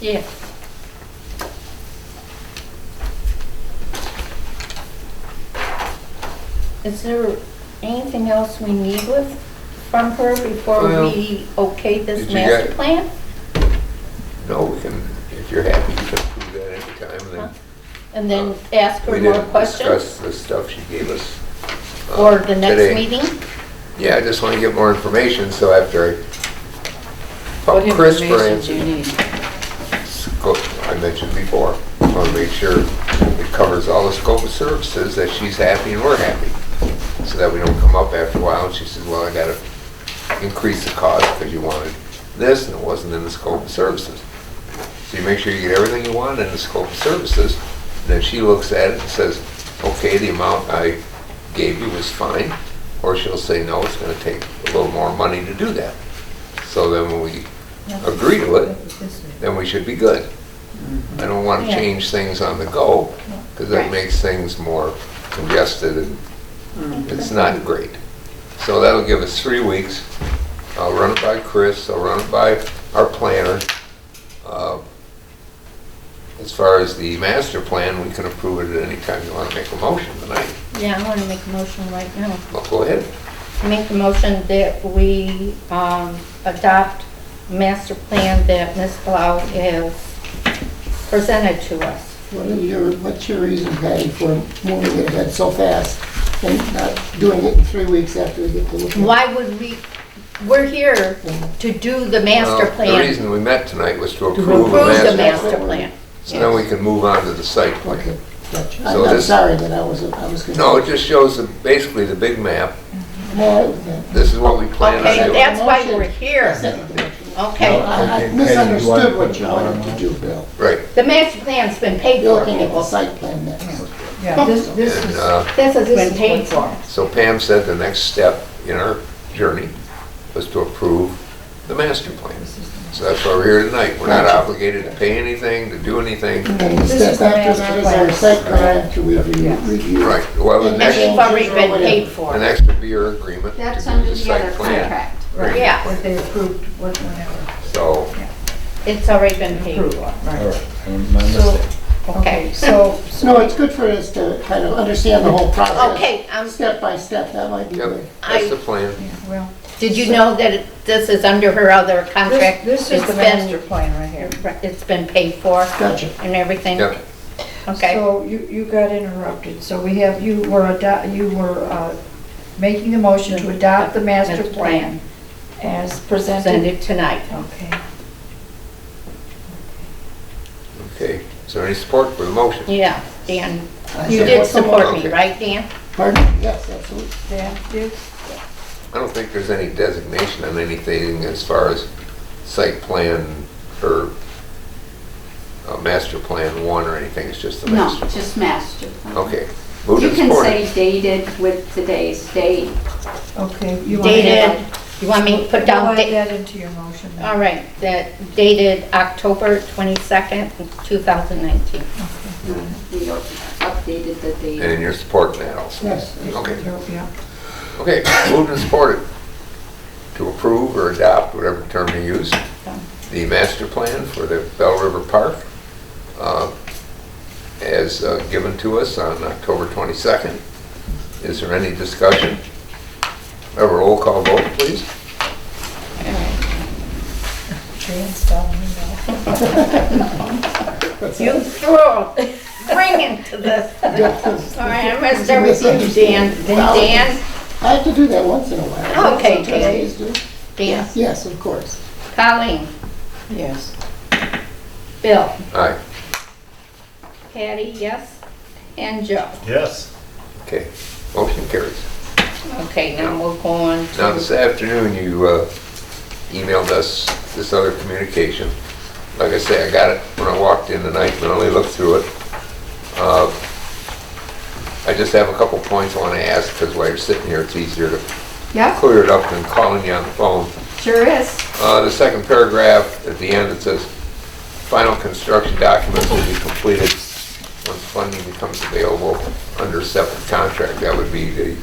Yeah. Is there anything else we need with, from her before Well, we okay did this you get- master plan? No, we can, if you're happy, you can approve that anytime, then. And then ask Uh, We her more didn't questions? discuss the stuff she gave us. uh, Or the next today. meeting? Yeah, I just want to get more information, so after I What call Chris for information do you instance, need? scope, I mentioned before, I want to make sure it covers all the scope of services, that she's happy and we're happy, so that we don't come up after a while and she says, well, I got to increase the cost because you wanted this and it wasn't in the scope of services. So you make sure you get everything you want in the scope of services, then she looks at it and says, okay, the amount I gave you was fine, or she'll say, no, it's gonna take a little more money to do that. So then when we agree to it, then we should be good. I don't wanna Mm-hmm. Yeah. change things on the go, because Right. that makes things more congested and Mm-hmm. it's not great. So that'll give us three weeks. I'll run it by Chris, I'll run it by our planner. Uh, As far as the master plan, we can approve it at any time you want to make a motion tonight. Yeah, I want to make a motion right now. Well, go ahead. Make a motion that we um, adopt master plan that Ms. Blau has presented to us. What are your, what's your reason, Patty, for moving it ahead so fast and not doing it in three weeks after we get to look at it? Why would we, we're here to do the master Well, The plan, reason we met tonight was to approve approve a the master. master plan. So then we can move on to the site plan. Okay, gotcha. So I'm I'm this- sorry that I was, I was. No, it just shows the- basically the big map. No, I- This is what we plan on Okay, doing. that's why we're here. Okay, I I Okay, Patty, misunderstood you what you want to wanted to do, Bill. Right. the master plan's been paid You're for, looking at the people. site plan next. Yeah, this, this And, uh, This has been paid for. So Pam said the next step in our journey was to approve the master plan. So that's why we're here tonight. We're not obligated to pay anything, to do anything. And then the This is step the after master that is our plan. site plan to review. Yes. review. Right, well, the And And next, we've already been paid the for. next would be your agreement. to That's do under the site other plan. contract. right, Yeah. What they approved, what- whatever. So, It's already been paid for. All Right. right, I'm- my So, mistake. okay, so, No, it's good for us to kind of understand the whole process. Okay, um, Step by step, that might be yep, good. I- that's the plan. well, did you know that it- this is under her other this, contract? this is It's the been- master plan right here. It's been paid for Gotcha. and everything? Yep. Okay, So you, you got interrupted, so we have, you were ado, you were, uh, making the motion to adopt the master Master plan. plan as send presented. it tonight. Okay, Okay, is there any support for the motion? Yeah, Dan, I you said, did what's the support mo- me, Okay. right, Dan? Pardon? Yes, absolutely. staff did, I don't think there's any designation on anything as far as site plan or uh, master plan one or anything, it's just the No, master. just master. plan. Okay, moved You and can supported. say dated with today's date. okay. you wanna add- Dated, you want me to put down, We'll add da- that into your motion then. all right, that dated October 22nd, 2019. We updated the date. And you're supporting that also? Yes. Okay, Yeah. okay, moved and supported to approve or adopt, whatever term you use, the master plan for the Bell River Park uh, as uh, given to us on October 22nd. Is there any discussion? Have a roll call vote, please. Dan's telling me no. You throw a ring into this. All right, I missed everything, Dan. Misunderstood. Dan, I have to do that once in a while. Oh, Okay, Some Dan. trustees do. Dan, Yes, of course. Colleen, Yes. Bill, Aye, Patty, yes, and Joe. Yes. okay, motion carries. Okay, now we'll go on Now, this to, afternoon, you uh, emailed us this other communication. Like I say, I got it when I walked in tonight, but I only looked through it. Uh, I just have a couple points I want to ask, because while you're sitting here, it's easier to Yep, clear it up than calling you on the phone. sure is. Uh, The second paragraph at the end, it says, "Final construction documents will be completed once funding becomes available under separate contract." That would be the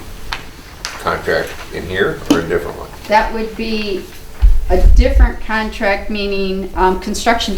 contract in here or a different one? That would be a different contract, meaning um, construction